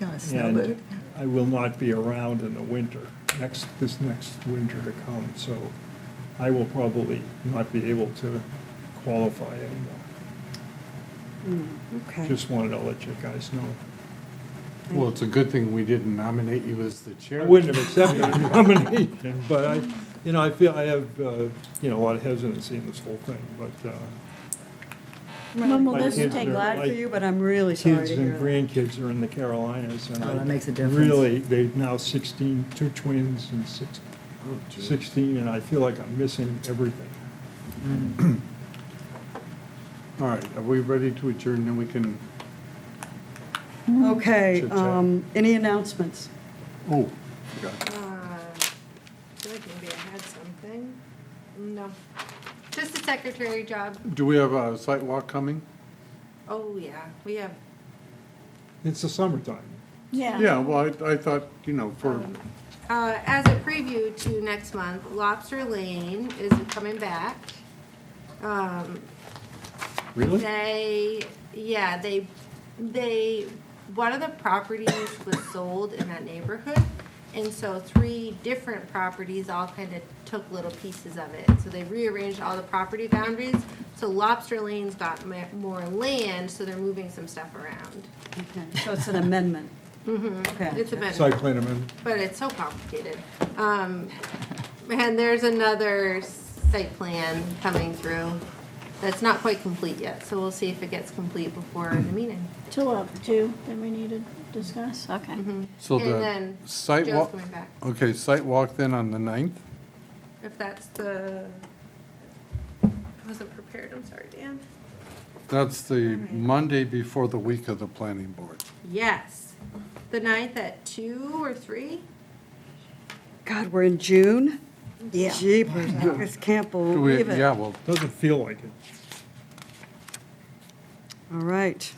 Yeah, it's not And bad. I will not be around in the winter, next, this next winter to come, so I will probably not be able to qualify anymore. Hmm, Okay. Just wanted to let you guys know. Well, it's a good thing we didn't nominate you as the chair. I wouldn't have accepted the nomination, but I, you know, I feel, I have, uh, you know, a lot of hesitancy in this whole thing, but uh, Mom, well, My this kids take are glad for like- you, but I'm really sorry kids to and hear grandkids are in the Carolinas. and Oh, I that makes a difference. Really, they've now 16, two twins and six- 16, and I feel like I'm missing everything. All right, are we ready to adjourn? Then we can, that. Okay, Chit chat. um, any announcements? oh, forgot. Uh, I feel like maybe I had something. No. Just a secretary job. Do we have a site walk coming? Oh, yeah, we have, It's the summertime. Yeah, well, I, I thought, you know, for, uh, as a preview to next month, Lobster Lane is coming back. Um, Really? They, yeah, they, they, one of the properties was sold in that neighborhood. And so three different properties all kind of took little pieces of it. So they rearranged all the property boundaries. So Lobster Lane's got ma- more land, so they're moving some stuff around. Okay, So it's an amendment? Mm-hmm. It's a Okay. bit, Site plan amendment. but it's so complicated. Um, and there's another site plan coming through that's not quite complete yet. So we'll see if it gets complete before the meeting. Two of two that we need to discuss, okay. Mm-hmm. so And the then site Joe's walk. coming back. Okay, site walk then on the ninth? If that's the, I wasn't prepared, I'm sorry, Dan. That's the Monday before the week of the planning board. Yes, the ninth at two or three? God, we're in June? Yeah. Jeepers, I just can't Do we, believe it. yeah, well, Doesn't feel like it. All right.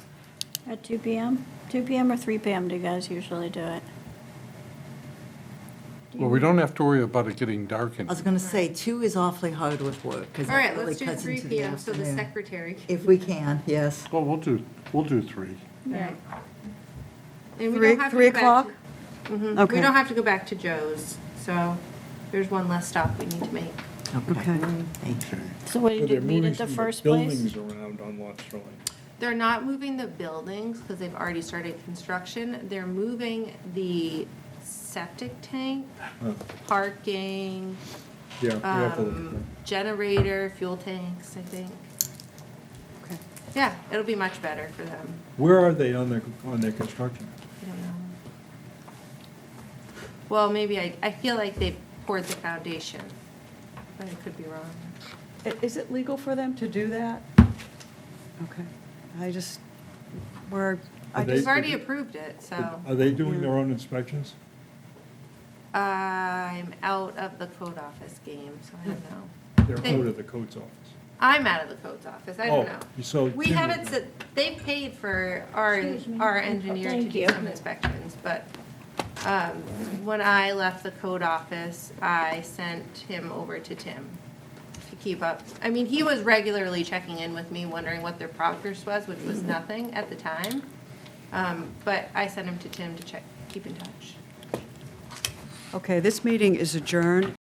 At two PM? Two PM or three PM do you guys usually do it? well, we don't have to worry about it getting dark I was and, going to say, two is awfully hard with work, because All right, it really let's do cuts three into the PM, so the afternoon. secretary. can- If we can, yes. well, we'll do, we'll do three. Right. And we Three- don't have to three go back. o'clock? to- Mhm. Okay. We don't have to go back to Joe's, so there's one less stop we need to make. Okay. Thank you. So what do you But they're do, meet moving at the some of first place? Buildings around on Lobster Lane. They're not moving the buildings because they've already started construction. They're moving the septic tank, Oh. parking, Yeah. we have to look at um, generator, fuel tanks, I think. Okay. Yeah, it'll be much better for them. that. Where are they on their, on their construction? I don't know. Well, maybe I, I feel like they poured the foundation, but I could be wrong. I- Is it legal for them to do that? Okay. I just, we're, I Are just, They've already approved it, so Are they doing their own inspections? I'm out of the code office game, so I don't know. They're They- out of the codes office. I'm out of the codes office, I don't Oh, know. so We Tim haven't, would said they paid for our, Excuse me. our engineer to Thank do you. some inspections, but um, when I left the code office, I sent him over to Tim to keep up. I mean, he was regularly checking in with me, wondering what their progress was, which was nothing at the time. Um, But I sent him to Tim to check, keep in touch. okay, this meeting is adjourned